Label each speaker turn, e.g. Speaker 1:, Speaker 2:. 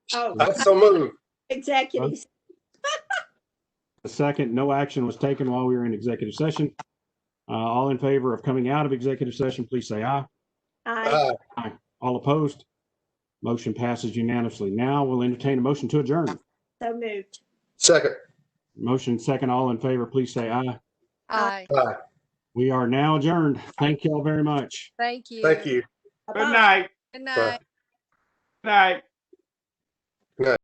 Speaker 1: Oh,
Speaker 2: That's so moved.
Speaker 1: executive,
Speaker 3: A second, no action was taken while we were in executive session. Uh, all in favor of coming out of executive session, please say aye.
Speaker 1: aye,
Speaker 4: Uh,
Speaker 2: Aye.
Speaker 3: All opposed? Motion passes unanimously. Now we'll entertain a motion to adjourn.
Speaker 1: so moved.
Speaker 2: Second.
Speaker 3: Motion second, all in favor, please say aye.
Speaker 4: Aye.
Speaker 2: Aye.
Speaker 3: We are now adjourned. Thank y'all very much.
Speaker 4: Thank you.
Speaker 2: Thank you.
Speaker 5: Good night.
Speaker 4: Good
Speaker 2: Bye.
Speaker 4: night.
Speaker 5: Night.